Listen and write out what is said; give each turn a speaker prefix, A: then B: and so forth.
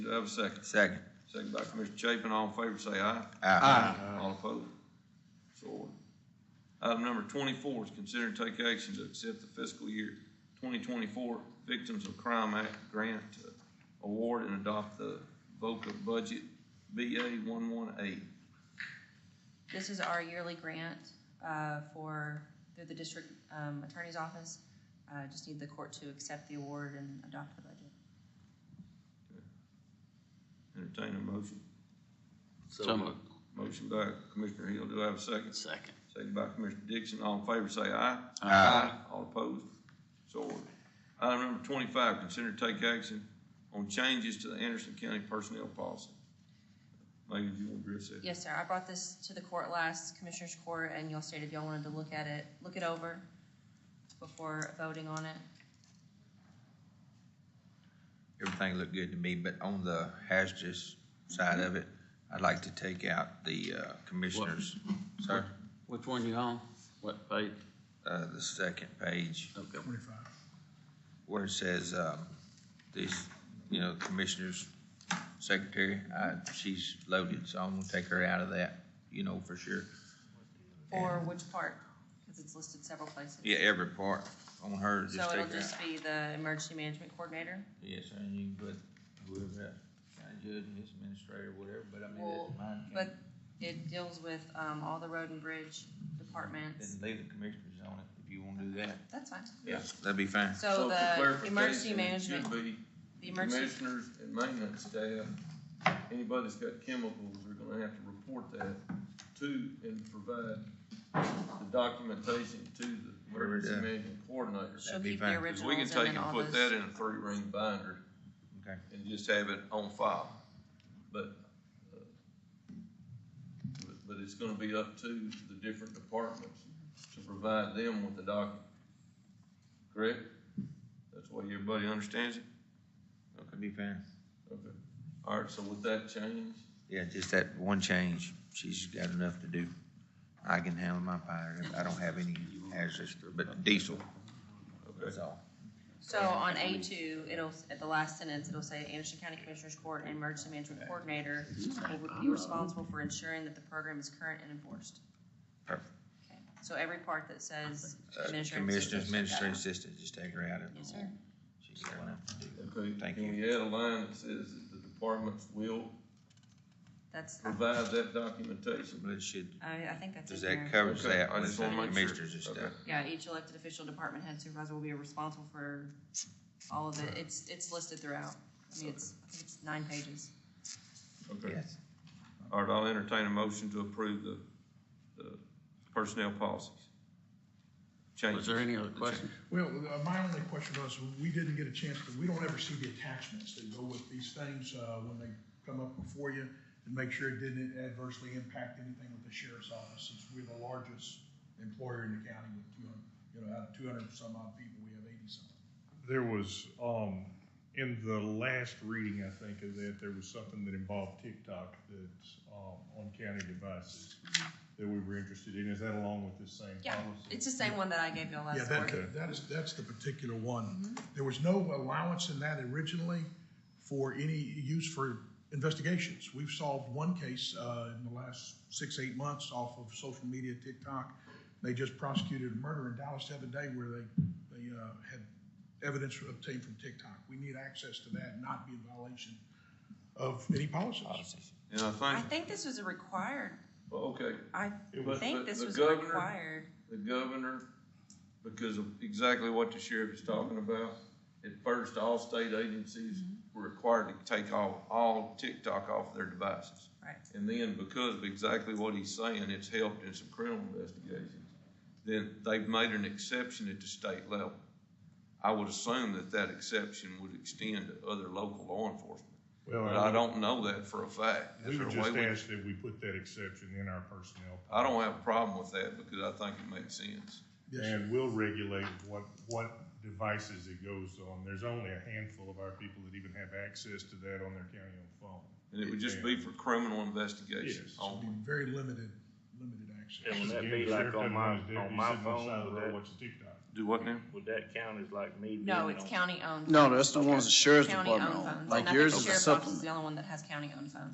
A: Do I have a second?
B: Second.
A: Second by Commissioner Chapin, all in favor, say aye.
B: Aye.
A: All opposed? So ordered. Item number twenty-four is consider and take action to accept the fiscal year twenty twenty-four Victims of Crime Act Grant uh, Award and adopt the VOCA budget BA one one eight.
C: This is our yearly grant uh, for, through the district um, attorney's office. Uh, Just need the court to accept the award and adopt the budget.
A: Entertain a motion.
D: So moved.
A: Motion by Commissioner Hill, do I have a second?
D: Second.
A: Second by Commissioner Dixon, all in favor, say aye.
B: Aye.
A: All opposed? So ordered. Item number twenty-five, consider and take action on changes to the Anderson County personnel policy. Maybe you want to address that?
C: Yes, sir. I brought this to the court last, Commissioners Court, and y'all stated y'all wanted to look at it, look it over before voting on it.
B: Everything looked good to me, but on the hazardous side of it, I'd like to take out the uh, commissioners. Sir,
D: Which one you on? What page?
B: uh, the second page
D: Okay.
B: where it says, um, this, you know, commissioners, secretary, uh, she's loaded, so I'm gonna take her out of that, you know, for sure.
C: Or which part, because it's listed several places.
B: Yeah, every part on her, just
C: So
B: take
C: it'll
B: her out.
C: just be the emergency management coordinator.
B: Yes, and you can put whoever, that, county judge, his administrator, whatever, but I mean,
C: Well,
B: that's mine.
C: But it deals with um, all the road and bridge departments.
B: Then leave the commissioners on it if you wanna do that.
C: That's fine.
A: Yeah.
B: That'd be fine.
C: So
A: for
C: the
A: clarification,
C: emergency
A: it
C: management,
A: Should be
C: the emergency,
A: commissioners and maintenance staff, anybody that's got chemicals are gonna have to report that to and provide the documentation to the
B: Whatever it
A: emergency
B: is.
A: management coordinator.
C: she'll
B: be
C: keep
B: fine,
C: the
A: 'Cause we can
C: originals and
A: take
C: then
A: and
C: all
A: put that
C: those.
A: in a three-ring binder
B: Okay.
A: and just have it on file. But, uh, but- but it's gonna be up to the different departments to provide them with the document. Correct? That's the way everybody understands it?
B: That'd be fine.
A: Okay. All right, so with that change,
B: Yeah, just that one change. She's got enough to do. I can handle my fire. I don't have any hazardous, but diesel, that's
A: okay,
B: all.
C: So on A two, it'll, at the last sentence, it'll say Anderson County Commissioners Court and Emergency Management Coordinator will be responsible for ensuring that the program is current and enforced.
B: Perfect.
C: Okay. So every part that says
B: Uh,
C: administrative.
B: Commissioner's
C: assistant, take that
B: administrative
C: out.
B: assistant, just take her out of it.
C: Yes, sir.
B: She's got enough to do.
A: okay.
B: Thank
A: Can we
B: you.
A: add a line that says that the departments will
C: That's,
A: provide that documentation?
B: But it should,
C: I, I think that's in
B: does
C: there.
B: that cover
A: Okay,
B: that?
A: I
B: Or
A: just
B: is
A: wanna
B: that
A: make sure.
B: commissioners and stuff?
A: Okay.
C: Yeah, each elected official, department head, supervisor will be responsible for all of it. It's, it's listed throughout. I mean, it's, I think it's nine pages.
A: Okay.
B: Yes.
A: All right, I'll entertain a motion to approve the, the personnel policies.
D: Was
A: Changes.
D: there any other questions?
E: Well, uh, my only question was, we didn't get a chance, to we don't ever see the attachments that go with these things, uh, when they come up before you, and make sure it didn't adversely impact anything with the sheriff's office, since we're the largest employer in the county with two hundred, you know, out of two hundred and some odd people, we have eighty some.
F: There was, um, in the last reading, I think, of that, there was something that involved TikTok that's, um, on county devices that we were interested in. Is that along with this same
C: Yeah,
F: policy?
C: it's the same one that I gave y'all
E: Yeah,
C: last
E: that,
C: quarter.
E: that is, that's the particular one. There was no allowance in that originally for any use for investigations. We've solved one case, uh, in the last six, eight months off of social media, TikTok. They just prosecuted a murder in Dallas the other day where they, they, uh, had evidence obtained from TikTok. We need access to that, and not be in violation of any policies.
B: Policies.
A: And I
C: I
A: think,
C: think this was a required,
A: well, okay,
C: I
F: It
A: was-
C: think
A: but
C: this
A: the
C: was
A: governor-
C: required.
A: the governor, because of exactly what the sheriff is talking about, at first, all state agencies were required to take all, all TikTok off their devices.
C: Right.
A: And then because of exactly what he's saying, it's helped in some criminal investigations, then they've made an exception at the state level. I would assume that that exception would extend to other local law enforcement.
F: Well,
A: But I don't know that for a fact.
F: We
A: Is there
F: would
A: a
F: just
A: way we-
F: ask that we put that exception in our personnel.
A: I don't have a problem with that because I think it makes sense.
E: Yes, sir.
F: And we'll regulate what, what devices it goes on. There's only a handful of our people that even have access to that on their county-owned phone.
A: And it would just be for criminal investigations
F: Yes.
E: It'll
A: only.
E: be Very limited, limited access.
G: And when that
F: Again,
G: be
F: the
G: like
F: sheriff
G: on
F: doesn't
G: my-
F: want his deputies
G: on my
F: sitting the
G: phone,
F: side of the
G: would
F: road
G: that-
F: watching TikTok.
A: Do what now?
G: Would that count as like me?
C: No,
G: being
C: it's
G: on-
C: county-owned.
H: No, that's the ones the sheriff's
C: County-owned
H: department
C: phones.
H: own,
C: And I
H: like
C: think
H: yours
C: the
H: is a
C: sheriff's office is
H: supplement.
C: the only one that has county-owned phones.